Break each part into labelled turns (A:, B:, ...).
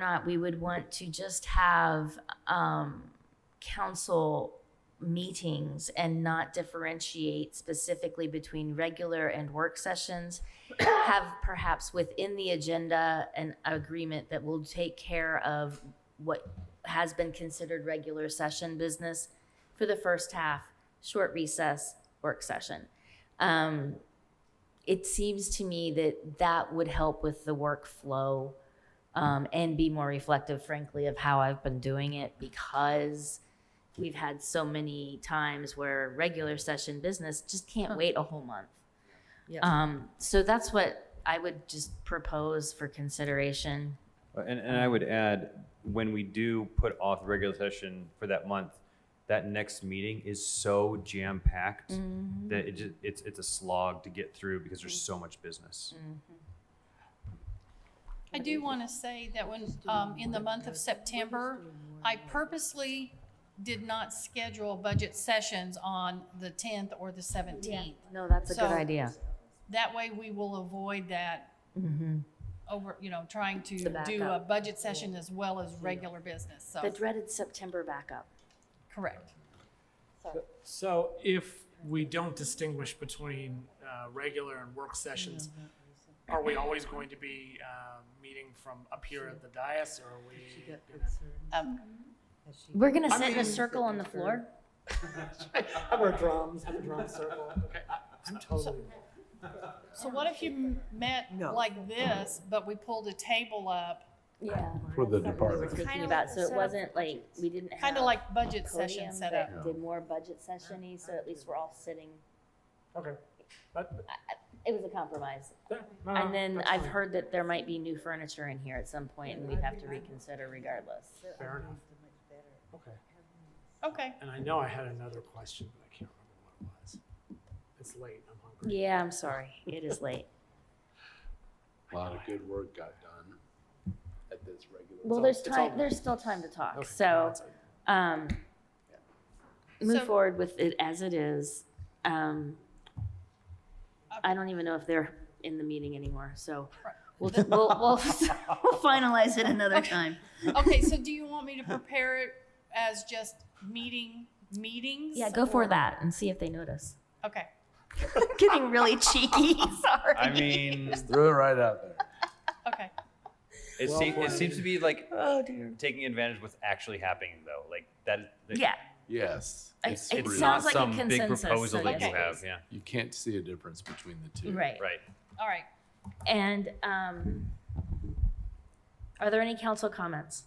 A: not we would want to just have um, council meetings and not differentiate specifically between regular and work sessions. Have perhaps within the agenda an agreement that will take care of what has been considered regular session business for the first half, short recess, work session. Um, it seems to me that that would help with the workflow um, and be more reflective, frankly, of how I've been doing it because we've had so many times where regular session business just can't wait a whole month.
B: Yeah.
A: Um, so that's what I would just propose for consideration.
C: Uh, And, and I would add, when we do put off the regular session for that month, that next meeting is so jam-packed
A: Mm-hmm.
C: that it just, it's, it's a slog to get through because there's so much business.
D: I do want to say that when, um, in the month of September, I purposely did not schedule budget sessions on the tenth or the seventeenth.
A: No, that's a good
D: So-
A: idea.
D: That way we will avoid that over, you know, trying to
A: Mm-hmm. The
D: do a
A: backup.
D: budget session as well as regular business,
A: The
D: so,
A: dreaded September backup.
D: correct.
E: So if we don't distinguish between uh, regular and work sessions, are we always going to be uh, meeting from up here at the dais, or are we?
D: Um,
A: We're gonna
E: I
A: sit in a
E: mean-
A: circle on the floor.
E: I'm our drums. I'm a drum circle. Okay, I'm totally.
D: So what if you m- met
B: No.
D: like this, but we pulled a table up,
A: Yeah.
F: For the department.
A: Thinking about, so it wasn't like, we didn't have.
D: kind of like budget
A: podium,
D: session
A: but
D: setup?
A: Did more budget sessiony, so at least we're all sitting.
E: Okay. But,
A: It was a compromise.
E: yeah, no, no,
A: And then
E: that's
A: I've
E: fine.
A: heard that there might be new furniture in here at some point and we'd have to reconsider regardless.
E: Fair enough. Okay.
D: Okay,
E: And I know I had another question, but I can't remember what it was. It's late. I'm hungry.
A: Yeah, I'm sorry. It is late.
F: A lot of good work got done at this regular.
A: Well,
E: all-
A: there's
E: it's all
A: time, there's still time to talk,
E: Okay,
A: so,
E: that's it.
A: um, move
D: So-
A: forward with it as it is. Um,
D: Uh,
A: I don't even know if they're in the meeting anymore, so
D: Right.
A: we'll, we'll, we'll we'll finalize it another time.
D: okay, so do you want me to prepare it as just meeting, meetings?
A: Yeah, go
D: or-
A: for that and see if they notice.
D: Okay.
A: Getting really cheeky, sorry.
C: I mean,
F: Threw it right out there.
D: Okay.
C: it
E: Well
C: seems, it
E: played.
C: seems to be like,
A: Oh,
C: taking advantage of what's actually happening though, like that. that-
A: Yeah,
F: Yes.
A: I-
F: it's
A: it
F: free.
A: sounds like a
C: some big
A: consensus,
C: proposal
A: so
C: that you
D: yes.
C: have, yeah,
F: You can't see a difference between the two.
A: right.
C: right.
D: All right.
A: And, um, are there any council comments?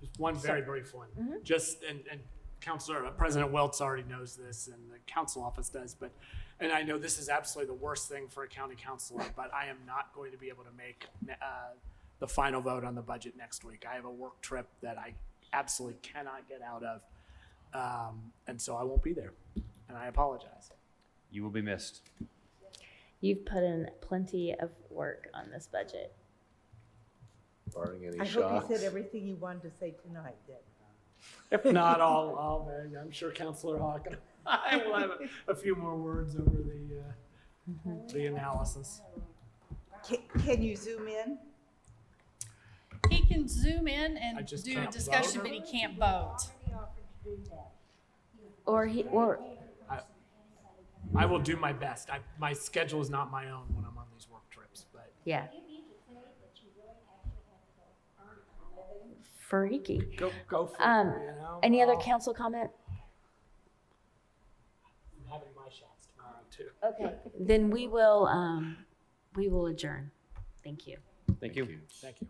E: Just one very brief one. Just, and, and Counselor, uh, President Wiltz already knows this and the council office does, but, and I know this is absolutely the worst thing for a county councilor, but I am not going to be able to make, uh, the final vote on the budget next week. I have a work trip that I absolutely cannot get out of. Um, and so I won't be there and I apologize.
C: You will be missed.
A: You've put in plenty of work on this budget.
F: Barring any
G: I hope
F: shocks.
G: you said everything you wanted to say tonight, Deb.
E: If not, I'll, I'll, I'm sure Counselor Hawk, and I will have a- a few more words over the, uh, the analysis.
G: Can, can you zoom in?
D: He can zoom in
E: I
D: and
E: just
D: do a
E: can't
D: discussion,
E: vote?
D: but he can't vote.
A: Or he, or,
E: I will do my best. I, my schedule is not my own when I'm on these work trips, but
A: yeah. Freaky.
E: go, go for
A: Um,
E: it. You know?
A: Any other
E: I'll-
A: council comment?
E: I'm having my shots tomorrow too.
A: Okay. Then we will, um, we will adjourn. Thank you.
C: Thank you.
E: Thank you.